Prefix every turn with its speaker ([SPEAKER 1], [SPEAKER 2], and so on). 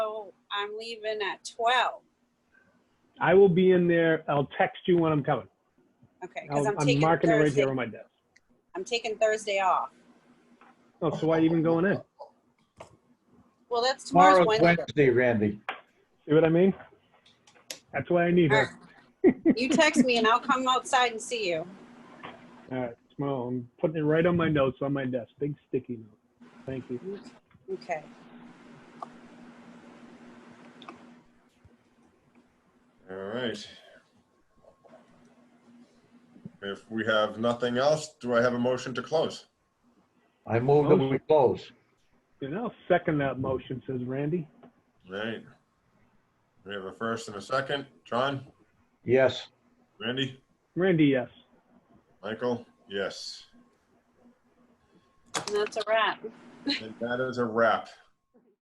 [SPEAKER 1] I'm leaving at 12.
[SPEAKER 2] I will be in there. I'll text you when I'm coming.
[SPEAKER 1] Okay, because
[SPEAKER 2] I'll,
[SPEAKER 1] I'm
[SPEAKER 2] I'm
[SPEAKER 1] taking
[SPEAKER 2] marking it right
[SPEAKER 1] Thursday.
[SPEAKER 2] here on my desk.
[SPEAKER 1] I'm taking Thursday off.
[SPEAKER 2] Oh, so why even going in?
[SPEAKER 1] Well, that's tomorrow's
[SPEAKER 3] Tomorrow's
[SPEAKER 1] Wednesday.
[SPEAKER 3] Wednesday, Randy.
[SPEAKER 2] See what I mean? That's why I need
[SPEAKER 1] All right.
[SPEAKER 2] her.
[SPEAKER 1] You text me and I'll come outside and see you.
[SPEAKER 2] All right, tomorrow, I'm putting it right on my notes on my desk, big sticky note. Thank you.
[SPEAKER 1] Mm-hmm. Okay.
[SPEAKER 4] All right. If we have nothing else, do I have a motion to close?
[SPEAKER 3] I move that we close.
[SPEAKER 2] And I'll second that motion, says Randy.
[SPEAKER 4] All Right. We have a first and a second. John,
[SPEAKER 3] Yes.
[SPEAKER 4] Randy,
[SPEAKER 2] Randy, yes.
[SPEAKER 4] Michael, yes.
[SPEAKER 1] And that's a wrap.
[SPEAKER 4] And that is a wrap.